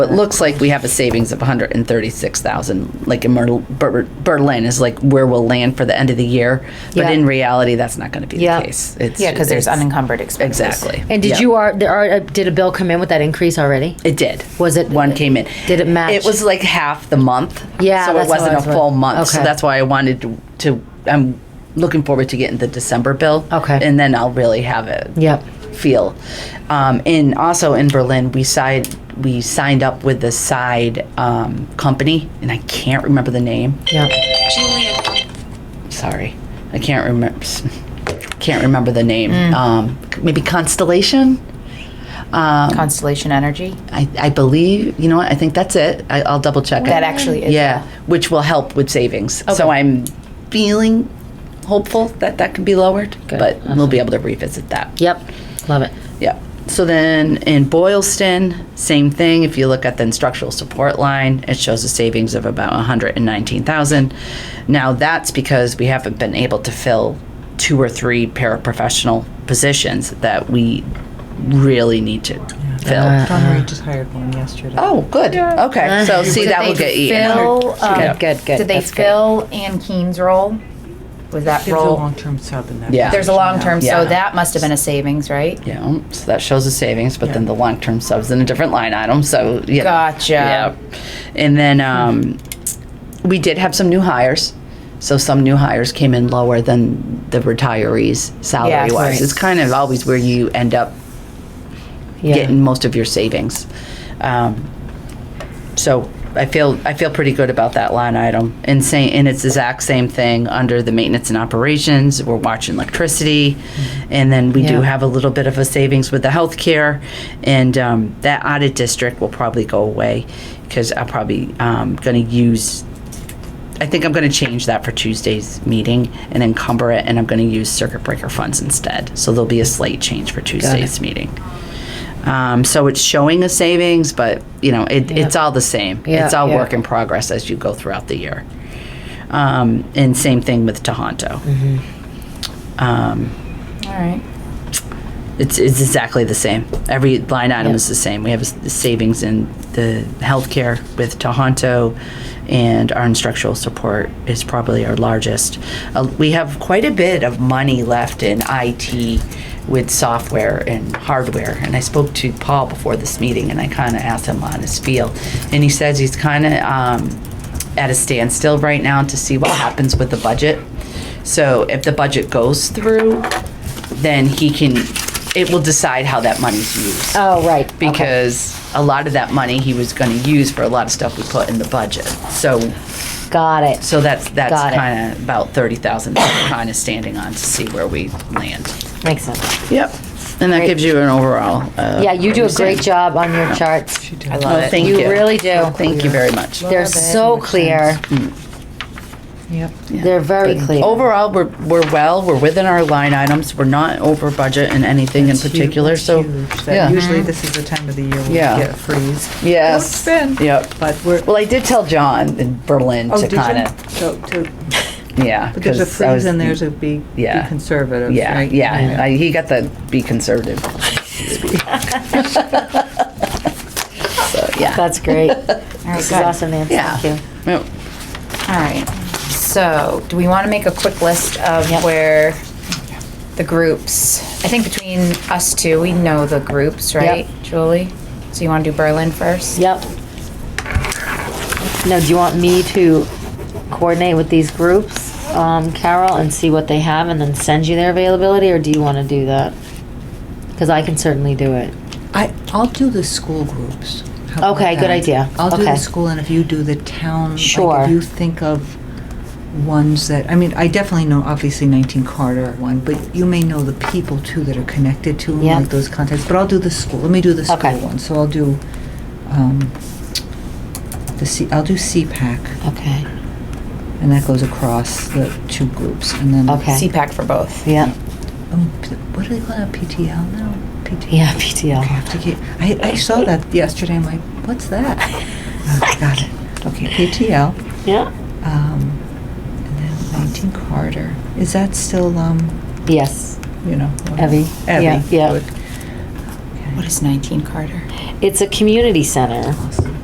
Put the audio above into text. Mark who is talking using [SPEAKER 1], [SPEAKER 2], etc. [SPEAKER 1] It looks like we have a savings of 136,000, like in Mer- Ber- Berlin is like where we'll land for the end of the year. But
[SPEAKER 2] Yeah.
[SPEAKER 1] in reality, that's not going to be
[SPEAKER 2] Yeah.
[SPEAKER 1] the case. It's-
[SPEAKER 3] Yeah, because there's
[SPEAKER 1] it's-
[SPEAKER 3] unencumbered expenses.
[SPEAKER 1] Exactly.
[SPEAKER 2] And did
[SPEAKER 1] Yeah.
[SPEAKER 2] you are there are did a bill come in with that increase already?
[SPEAKER 1] It did.
[SPEAKER 2] Was it-
[SPEAKER 1] one came in?
[SPEAKER 2] did it match?
[SPEAKER 1] It was like half the month.
[SPEAKER 2] Yeah,
[SPEAKER 1] so it
[SPEAKER 2] that's what I
[SPEAKER 1] wasn't a
[SPEAKER 2] was wondering.
[SPEAKER 1] full month. So
[SPEAKER 2] Okay.
[SPEAKER 1] that's why I wanted to, to. I'm looking forward to getting the December bill.
[SPEAKER 2] Okay.
[SPEAKER 1] and then I'll really have it.
[SPEAKER 2] Yep.
[SPEAKER 1] Feel, um, and also in Berlin we signed we signed up with the side um, company, and I can't remember the name.
[SPEAKER 2] Yeah.
[SPEAKER 1] Sorry, I can't remember. Can't remember the name.
[SPEAKER 3] Mm.
[SPEAKER 1] Um, maybe Constellation. Um,
[SPEAKER 3] Constellation Energy.
[SPEAKER 1] I, I believe you know what I think that's it. I, I'll double check.
[SPEAKER 3] That
[SPEAKER 1] it.
[SPEAKER 3] actually is,
[SPEAKER 1] yeah, which will help with savings. So I'm feeling hopeful that that can be lowered, but we'll be able to revisit that.
[SPEAKER 2] Yep. Love it.
[SPEAKER 1] Yeah. So then in Boylston, same thing. If you look at the instructional support line, it shows a savings of about 119,000. Now that's because we haven't been able to fill two or three paraprofessional positions that we really need to fill.
[SPEAKER 3] Uh,
[SPEAKER 4] John Reed just hired one yesterday.
[SPEAKER 1] Uh-uh. Oh, good. Okay. So see,
[SPEAKER 3] Did
[SPEAKER 1] that
[SPEAKER 3] they
[SPEAKER 1] will get eaten. up.
[SPEAKER 3] fill, um,
[SPEAKER 2] Good, good, good.
[SPEAKER 3] Did they
[SPEAKER 2] That's good.
[SPEAKER 3] fill Ann Keen's role? Was that
[SPEAKER 4] There's a
[SPEAKER 3] role?
[SPEAKER 4] long-term sub in that.
[SPEAKER 1] Yeah.
[SPEAKER 3] There's a long term,
[SPEAKER 1] Yeah.
[SPEAKER 3] so that must have been a savings, right?
[SPEAKER 1] Yeah, so that shows the savings, but then the long-term subs in a different line item. So yeah,
[SPEAKER 3] Gotcha.
[SPEAKER 1] Yeah, and then um, we did have some new hires. So some new hires came in lower than the retirees salary-wise.
[SPEAKER 3] right.
[SPEAKER 1] It's kind of always where you end up
[SPEAKER 2] Yeah.
[SPEAKER 1] getting most of your savings. Um, so I feel I feel pretty good about that line item. And say, and it's the exact same thing under the maintenance and operations. We're watching electricity, and then we do
[SPEAKER 2] Mm-hmm. Yeah.
[SPEAKER 1] have a little bit of a savings with the healthcare, and um, that audit district will probably go away because I'm probably um, going to use. I think I'm going to change that for Tuesday's meeting and encumber it, and I'm going to use circuit breaker funds instead. So there'll be a slight change for Tuesday's meeting. Um, so it's showing a savings, but you know, it, it's all the same.
[SPEAKER 2] Yeah,
[SPEAKER 1] it's all
[SPEAKER 2] yeah.
[SPEAKER 1] work in progress as you go throughout the year. Um, and same thing with Tohonto.
[SPEAKER 2] Mm-hmm.
[SPEAKER 1] Um,
[SPEAKER 3] All right.
[SPEAKER 1] it's, it's exactly the same. Every line item is the same. We have a s- the savings in the healthcare with Tohonto, and our instructional support is probably our largest. Uh, we have quite a bit of money left in IT with software and hardware. And I spoke to Paul before this meeting, and I kind of asked him on his feel, and he says he's kind of um, at a standstill right now to see what happens with the budget. So if the budget goes through, then he can, it will decide how that money's used.
[SPEAKER 2] Oh, right. Okay.
[SPEAKER 1] Because a lot of that money he was gonna use for a lot of stuff we put in the budget. So,
[SPEAKER 2] Got it.
[SPEAKER 1] so that's, that's
[SPEAKER 2] Got it.
[SPEAKER 1] kinda about thirty thousand, kind of standing on to see where we land.
[SPEAKER 2] Makes sense.
[SPEAKER 1] Yep. And that gives you an overall. uh,
[SPEAKER 2] Yeah, you do a great
[SPEAKER 1] understanding.
[SPEAKER 2] job on your charts.
[SPEAKER 4] She
[SPEAKER 1] I
[SPEAKER 4] does.
[SPEAKER 1] love it. Thank you.
[SPEAKER 2] You really do.
[SPEAKER 1] Thank you very much.
[SPEAKER 2] They're so
[SPEAKER 4] Makes
[SPEAKER 2] clear.
[SPEAKER 4] Yep.
[SPEAKER 2] They're very clear.
[SPEAKER 1] Overall, we're, we're well, we're within our line items, we're not over budget in anything in
[SPEAKER 4] It's hu-
[SPEAKER 1] particular,
[SPEAKER 4] it's
[SPEAKER 1] so.
[SPEAKER 4] huge that
[SPEAKER 1] yeah.
[SPEAKER 4] Usually this is the time of the year we
[SPEAKER 1] Yeah.
[SPEAKER 4] get a freeze,
[SPEAKER 1] Yes.
[SPEAKER 4] Well, it's been.
[SPEAKER 1] Yep.
[SPEAKER 4] but we're.
[SPEAKER 1] Well, I did tell John in Berlin
[SPEAKER 4] Oh,
[SPEAKER 1] to
[SPEAKER 4] did you?
[SPEAKER 1] kind of,
[SPEAKER 4] So, to,
[SPEAKER 1] yeah.
[SPEAKER 4] but there's a
[SPEAKER 1] 'cause I
[SPEAKER 4] freeze
[SPEAKER 1] was-
[SPEAKER 4] and there's a be, be
[SPEAKER 1] Yeah.
[SPEAKER 4] conservative,
[SPEAKER 1] Yeah,
[SPEAKER 4] right?
[SPEAKER 1] yeah. I, he got the be conservative. so, yeah.
[SPEAKER 2] That's great.
[SPEAKER 3] All right,
[SPEAKER 2] This is
[SPEAKER 3] good.
[SPEAKER 2] awesome, Nancy.
[SPEAKER 1] Yeah.
[SPEAKER 2] Thank you.
[SPEAKER 1] Yep.
[SPEAKER 3] All right. So, do we want to make a quick list of where the groups? I think between us two, we know the groups, right, Julie? So you want to do Berlin first?
[SPEAKER 2] Yep. Now, do you want me to coordinate with these groups, um, Carol, and see what they have and then send you their availability, or do you want to do that? Because I can certainly do it.
[SPEAKER 4] I, I'll do the school groups. How about
[SPEAKER 2] Okay, good
[SPEAKER 4] that?
[SPEAKER 2] idea.
[SPEAKER 4] I'll do
[SPEAKER 2] Okay.
[SPEAKER 4] the school, and if you do the town, like
[SPEAKER 2] Sure.
[SPEAKER 4] if you think of ones that, I mean, I definitely know, obviously, 19 Carter one, but you may know the people too that are connected to them,
[SPEAKER 2] Yeah.
[SPEAKER 4] like those contacts. But I'll do the school. Let me do the
[SPEAKER 2] Okay.
[SPEAKER 4] school one. So I'll do um, the C. I'll do CPAC,
[SPEAKER 2] Okay.
[SPEAKER 4] and that goes across the two groups, and then
[SPEAKER 2] Okay.
[SPEAKER 3] CPAC for both.
[SPEAKER 2] Yeah.
[SPEAKER 4] Oh, p- what do they call that? PTL now? PTL.
[SPEAKER 2] Yeah, PTL.
[SPEAKER 4] I have to get, I, I saw that yesterday, I'm like, what's that? Oh, Got it. Okay, PTL,
[SPEAKER 2] Yeah.
[SPEAKER 4] um, and then 19 Carter. Is that still, um,
[SPEAKER 2] Yes.
[SPEAKER 4] you know?
[SPEAKER 2] Evie,
[SPEAKER 4] Evie.
[SPEAKER 2] yeah, yeah.
[SPEAKER 4] good.
[SPEAKER 3] What is 19 Carter?
[SPEAKER 2] It's a community center.